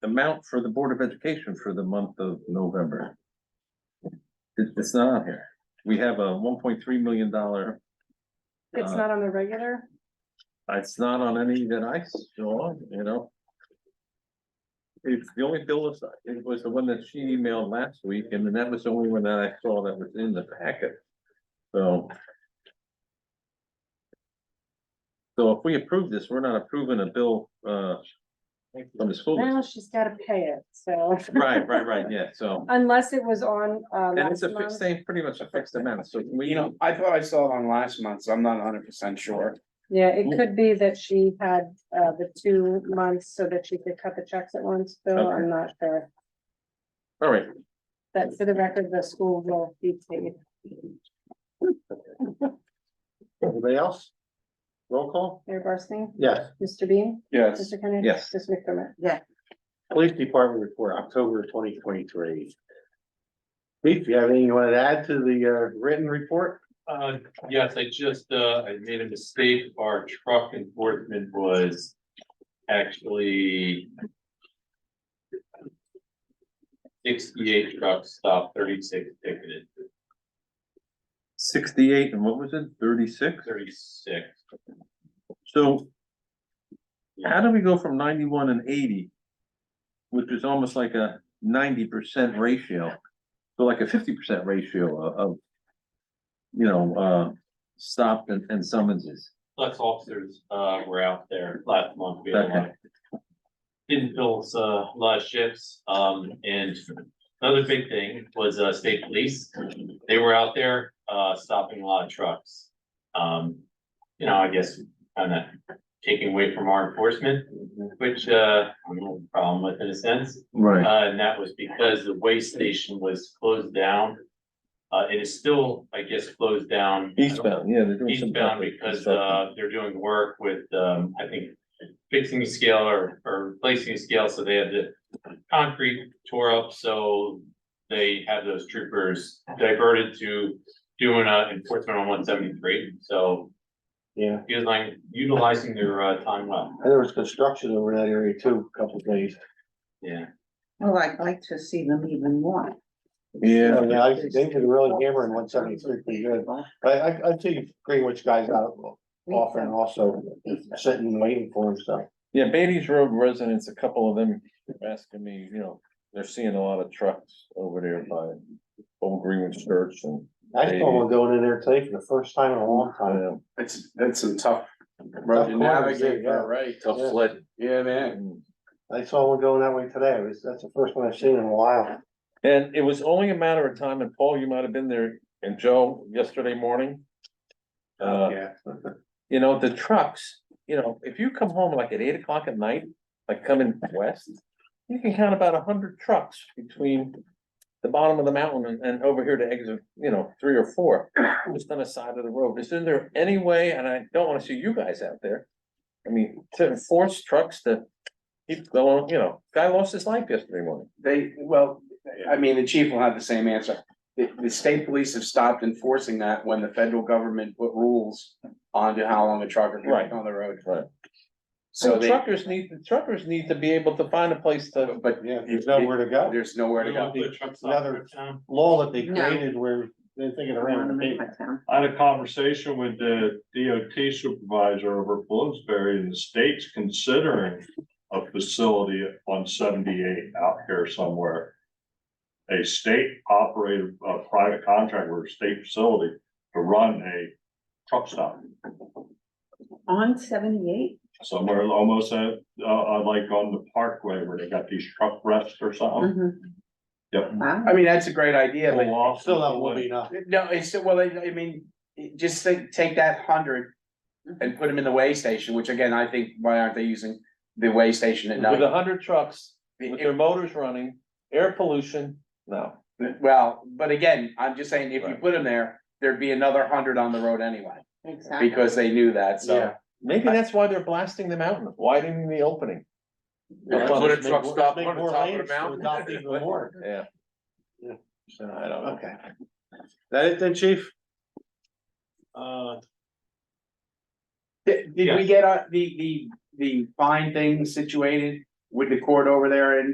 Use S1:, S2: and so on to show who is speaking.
S1: amount for the Board of Education for the month of November. It, it's not on here. We have a one point three million dollar,
S2: It's
S1: Uh,
S2: not on the regular?
S1: it's not on any that I saw, you know? It's the only bill was, it was the one that she emailed last week, and then that was the only one that I saw that was in the packet. So. So if we approve this, we're not approving a bill, uh, from the school.
S2: Now she's gotta pay it, so
S1: Right, right, right, yeah, so,
S2: unless it was on uh
S1: and it's
S2: last
S1: a fixed,
S2: month.
S1: same, pretty much a fixed amount, so we,
S3: You know, I thought I saw it on last month, so I'm not hundred percent sure.
S2: Yeah, it could be that she had uh the two months so that she could cut the checks at once, Bill.
S1: Okay.
S2: I'm not sure.
S1: all right,
S2: But for the record, the school will be paid.
S4: Anybody else? Roll call?
S2: Mayor Barsney?
S4: Yes.
S2: Mr. Bean?
S3: Yes,
S2: Mr. Kennedy?
S1: Yes.
S2: Mr. McDermott?
S4: Police Department report, October twenty twenty-three. Chief, you have anything you want to add to the uh, written report?
S5: Uh, yes, I just, uh, I made a mistake. Our truck enforcement was actually sixty-eight trucks stopped, thirty-six ticketed,
S1: sixty-eight, and what was it, thirty-six?
S5: thirty-six.
S1: So how do we go from ninety-one and eighty? Which is almost like a ninety percent ratio, so like a fifty percent ratio of, of, you know, uh, stopped and, and summonses.
S5: Flex officers, uh, were out there last month. We had a lot.
S1: Okay.
S5: Didn't fill, uh, a lot of shifts, um, and another big thing was, uh, state police. They were out there, uh, stopping a lot of trucks. Um, you know, I guess kind of taking away from our enforcement,
S1: Mm-hmm.
S5: which, uh, I'm a little problem with in a sense.
S1: Right.
S5: Uh, and that was because the weigh station was closed down. Uh, it is still, I guess, closed down. I don't-
S1: Eastbound, yeah. they're doing some
S5: Eastbound
S1: type of
S5: because
S1: construction.
S5: uh they're doing work with um, I think fixing a scale or or replacing a scale, so they had the concrete tore up, so they have those troopers diverted to doing uh enforcement on one seventy-three, so
S4: Yeah,
S5: utilizing utilizing their uh time well,
S4: and there was construction over that area too, a couple of days.
S5: yeah.
S6: Well, Oh, I'd like to see them even more.
S1: Yeah,
S4: Yeah, I- they did really hammer in one seventy-three pretty good. I, I, I see Greenwich guys out often also sitting and waiting for them, so.
S1: yeah, Beatty's Road residents, a couple of them asking me, you know, they're seeing a lot of trucks over there by Old Greenwich Church and.
S4: I saw one going in there today for the first time in a long
S1: I
S4: time.
S1: know,
S3: it's, it's a tough road to
S4: Of course,
S3: navigate,
S4: yeah.
S3: but right?
S1: tough
S4: Yeah.
S1: sled.
S3: Yeah, man.
S1: And
S4: I saw one going that way today. It was, that's the first one I've seen in a while.
S1: it was only a matter of time, and Paul, you might have been there, and Joe, yesterday morning. Uh,
S3: Yeah,
S1: you know, the trucks, you know, if you come home like at eight o'clock at night, like coming west. You can count about a hundred trucks between the bottom of the mountain and, and over here to exit, you know, three or four. Just on the side of the road, isn't there any way, and I don't wanna see you guys out there. I mean, to force trucks to keep going, you know, guy lost his life yesterday morning.
S3: they, well, I mean, the chief will have the same answer. The, the state police have stopped enforcing that when the federal government put rules onto how long a trucker can
S1: Right.
S3: be on the road.
S1: Right.
S3: So they,
S1: Truckers need, truckers need to be able to find a place to,
S3: but
S4: Yeah, there's nowhere to go.
S3: there's nowhere to go.
S5: We want the trucks off
S4: Another-
S5: the town.
S4: Law that they
S6: No.
S4: created where they're thinking around the paper.
S7: I had a conversation with the DOT supervisor over Bloomsbury, and the state's considering a facility on seventy-eight out here somewhere. A state operated, a private contractor, or state facility to run a truck stop
S6: On seventy-eight?
S7: somewhere almost at, uh, uh, like on the parkway where they got these truck rests or
S4: Oh.
S7: something. Yep.
S6: Mm-hmm. Wow.
S3: I mean, that's a great idea, but
S7: Pull off.
S4: Still not would be enough.
S3: No, it's, well, I, I mean, just think, take that hundred and put them in the weigh station, which again, I think, why aren't they using the weigh station at
S1: with
S3: night?
S1: a hundred trucks, with their motors running, air pollution, no.
S3: Well, but again, I'm just saying, if you
S1: Right.
S3: put them there, there'd be another hundred on the road anyway,
S6: Exactly.
S3: because they knew that, so.
S4: Yeah.
S1: Maybe that's why they're blasting the mountain, widening the opening.
S4: Yeah,
S1: Put a
S4: make
S1: truck
S4: more-
S1: stop
S4: make
S1: on the
S4: more
S1: top of the
S4: lanes to
S1: mountain.
S4: adopt even more.
S1: Yeah.
S4: Yeah.
S1: So I don't know.
S4: Okay. That it then, chief?
S5: Uh,
S3: Did, did we get, uh, the, the, the fine thing situated with the court over there in